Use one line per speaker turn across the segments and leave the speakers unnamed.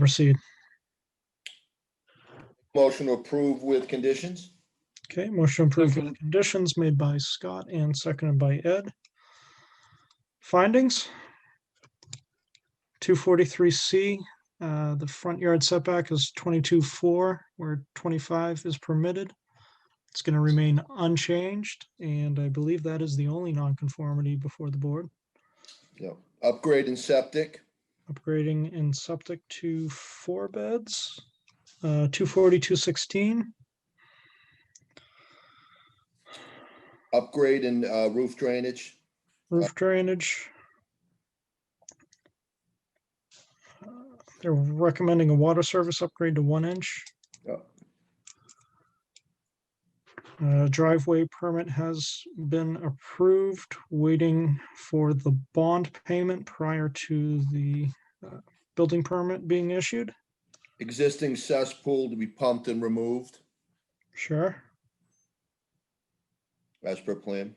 Proceed.
Motion to approve with conditions?
Okay, motion approved with
Second.
conditions made by Scott and seconded by Ed. Findings? Two forty-three C, uh, the front yard setback is twenty-two four, where twenty-five is permitted. It's gonna remain unchanged, and I believe that is the only nonconformity before the board,
Yep. Upgrade in septic?
upgrading in septic to four beds. Uh, two forty-two sixteen,
Upgrade in uh, roof drainage?
Roof drainage. Uh, They're recommending a water service upgrade to one inch.
Yep.
Uh, Driveway permit has been approved, waiting for the bond payment prior to the uh, building permit being issued.
Existing cesspool to be pumped and removed
Sure.
as per plan?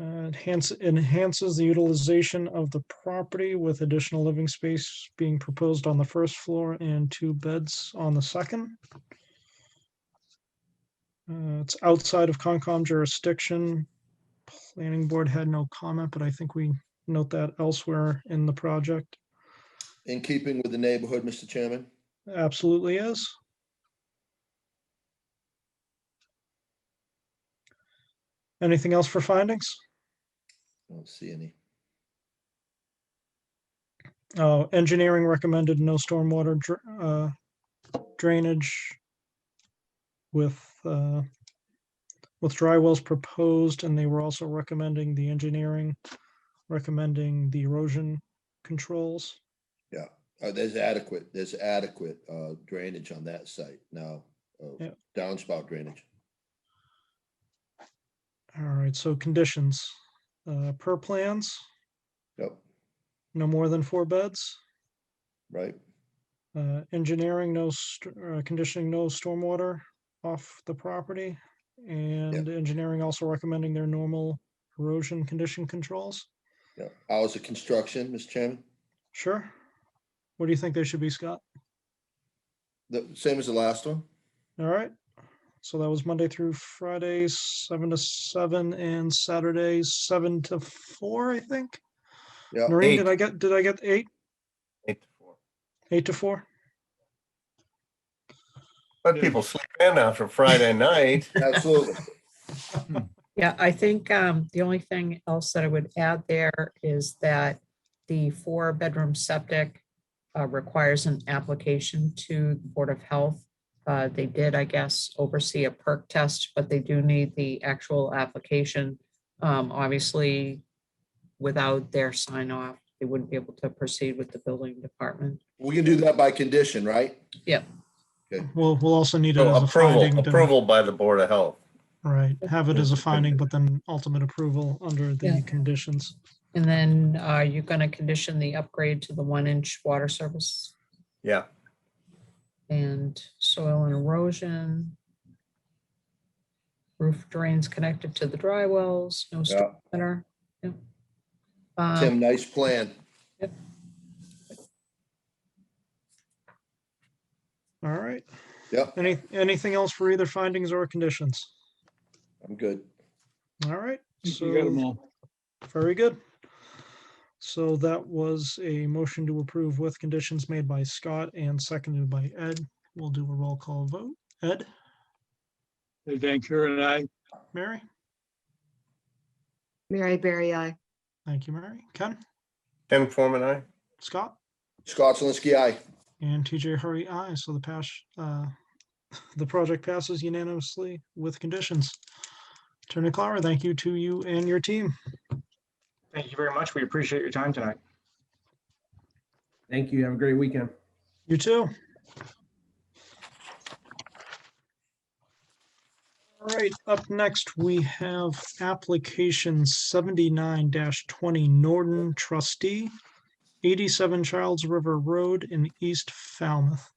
Uh, Enhance, enhances the utilization of the property with additional living space being proposed on the first floor and two beds on the second. Uh, It's outside of Concom jurisdiction. Planning board had no comment, but I think we note that elsewhere in the project.
In keeping with the neighborhood, Mr. Chairman?
Absolutely is. Anything else for findings?
I don't see any.
Oh, engineering recommended no stormwater dr- uh, drainage with, uh, with dry wells proposed, and they were also recommending the engineering, recommending the erosion controls.
Uh, There's adequate, there's adequate uh, drainage on that site now. uh,
Yeah.
Downspout drainage.
All right, so conditions, uh, per plans,
Yep,
no more than four beds.
right.
Uh, engineering, no, st- uh, conditioning, no stormwater off the property. And engineering also recommending their normal erosion condition controls.
Yeah. Hours of construction, Mr. Chairman?
Sure. What do you think they should be, Scott?
The same as the last one?
All right. So that was Monday through Friday, seven to seven, and Saturday, seven to four, I think.
Yeah.
Noreen,
Uh, eight.
did I get, did I get eight,
Eight to four.
eight to four?
Let people sleep in after Friday night.
Absolutely.
Yeah, I think um, the only thing else that I would add there is that the four-bedroom septic uh, requires an application to the Board of Health. Uh, They did, I guess, oversee a perk test, but they do need the actual application. Um, Obviously, without their sign off, they wouldn't be able to proceed with the building department.
We can do that by condition, right?
We'll, we'll also need it
So
as a finding.
Oh, Approval,
to-
approval by the Board of Health.
Right, have it as a finding, but then ultimate approval under the
Yeah.
conditions.
And then are you going to condition the upgrade to the one-inch water service
Yeah,
and soil and erosion. Roof drains connected to the dry wells, no storm center. yep.
Tim,
Um,
nice plan.
All right.
Yep,
Any, anything else for either findings or conditions?
I'm good.
All right.
You got them
So,
all.
very good. So that was a motion to approve with conditions made by Scott and seconded by Ed. We'll do a roll call vote. Ed,
Ed Van Kuren, I,
Mary?
Mary Berry I.
Thank you, Mary. Ken,
Tim Forman, aye.
Scott,
Scott Zelinski, aye.
and TJ Hurry, aye. So the pass, uh, the project passes unanimously with conditions. Attorney Clara, thank you to you and your team.
Thank you very much. We appreciate your time tonight.
Thank you. Have a great weekend.
You too. All right, up next, we have application seventy-nine twenty Norton trustee, eighty-seven Childs River Road in East Falmouth.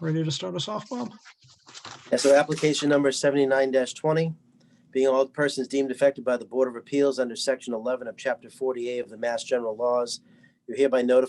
Ready to start us off, Bob?
Yeah, so application number seventy-nine twenty, being all persons deemed affected by the Board of Appeals under section eleven of chapter forty-eight of the Mass General Laws, You're hereby notified